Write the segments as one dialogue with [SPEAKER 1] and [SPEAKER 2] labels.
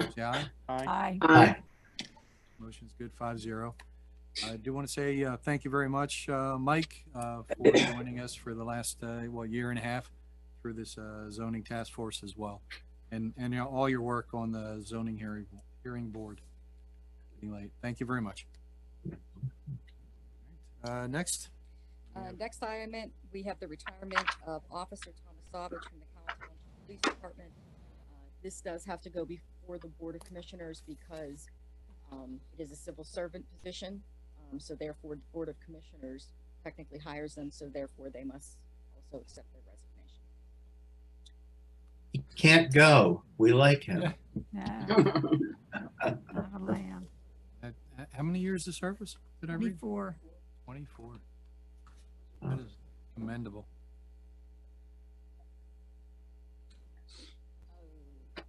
[SPEAKER 1] say aye.
[SPEAKER 2] Aye.
[SPEAKER 3] Aye.
[SPEAKER 1] Motion's good, five zero. I do want to say, uh, thank you very much, uh, Mike, uh, for joining us for the last, uh, well, year and a half through this, uh, zoning task force as well. And, and you know, all your work on the zoning hearing, hearing board. Anyway, thank you very much. Uh, next,
[SPEAKER 2] Uh, next item, we have the retirement of Officer Thomas Savage from the Collin Township Police Department. Uh, This does have to go before the Board of Commissioners because, um, it is a civil servant position. Um, so therefore, the Board of Commissioners technically hires them, so therefore they must also accept their resignation.
[SPEAKER 3] He can't go. We like him.
[SPEAKER 4] Yeah, not a lamb.
[SPEAKER 1] uh, h- how many years of service did I read?
[SPEAKER 4] Before,
[SPEAKER 1] Twenty-four. That is commendable.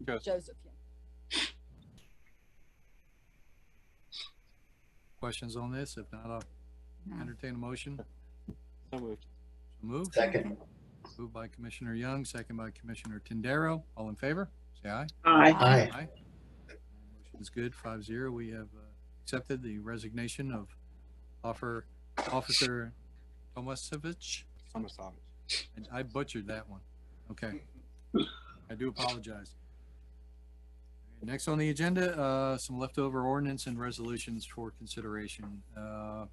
[SPEAKER 1] Joseph.
[SPEAKER 2] Joseph, yeah.
[SPEAKER 1] Questions on this? If not, I'll
[SPEAKER 4] no,
[SPEAKER 1] entertain a motion.
[SPEAKER 5] So moved.
[SPEAKER 1] Move.
[SPEAKER 3] Second.
[SPEAKER 1] Moved by Commissioner Young, second by Commissioner Tindaro. All in favor? Say aye.
[SPEAKER 6] Aye.
[SPEAKER 3] Aye.
[SPEAKER 1] Motion's good, five zero. We have uh, accepted the resignation of offer, Officer Tomasevich.
[SPEAKER 5] Thomas Savage.
[SPEAKER 1] And I butchered that one. Okay. I do apologize. Next on the agenda, uh, some leftover ordinance and resolutions for consideration. Uh,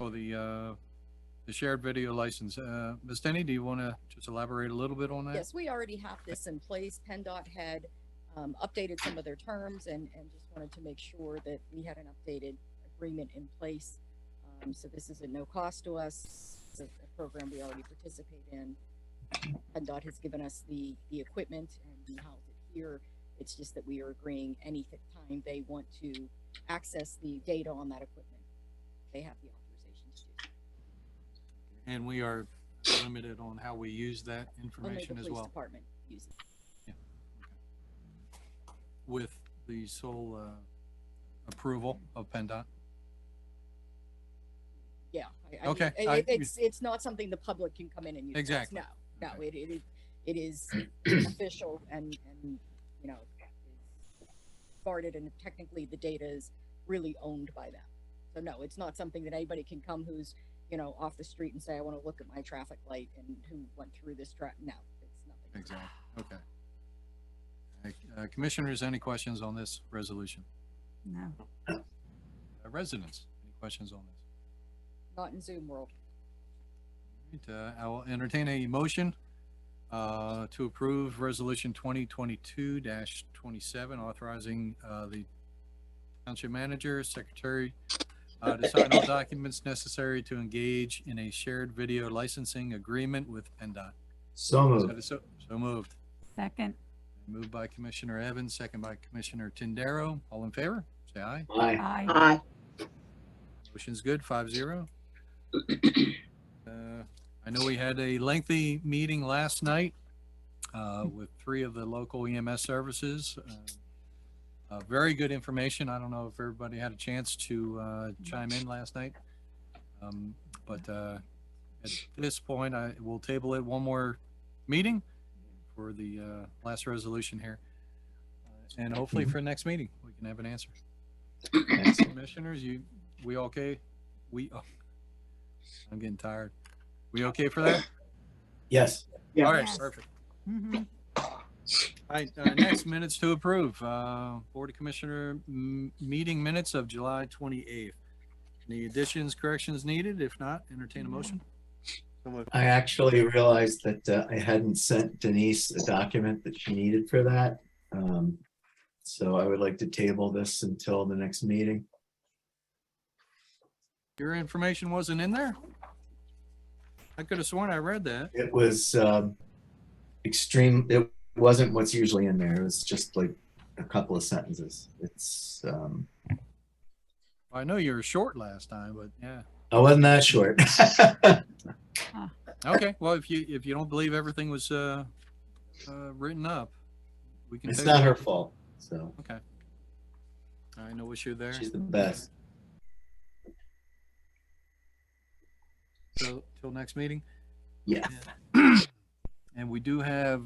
[SPEAKER 1] Oh, the, uh, the shared video license. Uh, Ms. Denny, do you want to just elaborate a little bit on that?
[SPEAKER 2] Yes, we already have this in place. PennDOT had um, updated some of their terms and, and just wanted to make sure that we had an updated agreement in place. Um, So this is at no cost to us. It's a a program we already participate in. PennDOT has given us the, the equipment and we house it here. It's just that we are agreeing any th- time they want to access the data on that equipment, they have the authorization to do so.
[SPEAKER 1] And we are limited on how we use that
[SPEAKER 2] Only the
[SPEAKER 1] information as
[SPEAKER 2] police
[SPEAKER 1] well
[SPEAKER 2] department uses. it.
[SPEAKER 1] with the sole, uh, approval of PennDOT.
[SPEAKER 2] Yeah. I- I mean,
[SPEAKER 1] Okay,
[SPEAKER 2] it-
[SPEAKER 1] I-
[SPEAKER 2] it- It's, it's not something the public can come in and use.
[SPEAKER 1] Exactly.
[SPEAKER 2] No, no,
[SPEAKER 1] Okay.
[SPEAKER 2] it, it, is- it is official and, and, you know, is guarded and technically the data is really owned by them. So no, it's not something that anybody can come who's, you know, off the street and say, I want to look at my traffic light and who went through this tra, no, it's nothing.
[SPEAKER 1] Exactly, okay. Uh, Commissioners, any questions on this resolution?
[SPEAKER 4] no.
[SPEAKER 1] Uh, Residents, any questions on this?
[SPEAKER 2] Not in Zoom world.
[SPEAKER 1] All right, uh, I will entertain a motion uh, to approve Resolution 2022-27, authorizing uh, the Township Manager, Secretary, uh, to sign all documents necessary to engage in a shared video licensing agreement with PennDOT.
[SPEAKER 3] So
[SPEAKER 1] So
[SPEAKER 3] moved.
[SPEAKER 1] that is So so moved.
[SPEAKER 4] Second,
[SPEAKER 1] Moved by Commissioner Evans, second by Commissioner Tindaro. All in favor? Say aye.
[SPEAKER 3] Aye.
[SPEAKER 4] aye.
[SPEAKER 6] Aye.
[SPEAKER 1] Motion's good, five zero. Uh, I know we had a lengthy meeting last night uh, with three of the local EMS services. Uh, uh, Very good information. I don't know if everybody had a chance to uh, chime in last night. Um, But uh, at this point, I will table it one more meeting for the uh, last resolution here. Uh, And hopefully for next meeting, we can have an answer. Commissioners, you, we okay? We, oh, I'm getting tired. We okay for that?
[SPEAKER 3] Yes.
[SPEAKER 6] Yeah.
[SPEAKER 1] All right,
[SPEAKER 4] Yes.
[SPEAKER 1] perfect.
[SPEAKER 4] Mhm.
[SPEAKER 1] All right, uh, next minutes to approve, uh, Board of Commissioner m- meeting minutes of July twenty-eighth. Any additions, corrections needed? If not, entertain a motion.
[SPEAKER 5] So moved.
[SPEAKER 3] I actually realized that uh, I hadn't sent Denise the document that she needed for that. Um, So I would like to table this until the next meeting.
[SPEAKER 1] Your information wasn't in there? I could have sworn I read that.
[SPEAKER 3] It was um, extreme, it wasn't what's usually in there. It was just like a couple of sentences. It's, um,
[SPEAKER 1] I know you were short last time, but yeah.
[SPEAKER 3] I wasn't that short.
[SPEAKER 1] Okay, well, if you, if you don't believe everything was, uh, uh, written up, we can.
[SPEAKER 3] It's
[SPEAKER 1] table
[SPEAKER 3] not
[SPEAKER 1] it.
[SPEAKER 3] her fault, so
[SPEAKER 1] Okay. All right, no issue there.
[SPEAKER 3] she's the best.
[SPEAKER 1] So, till next meeting?
[SPEAKER 3] Yeah.
[SPEAKER 1] And we do have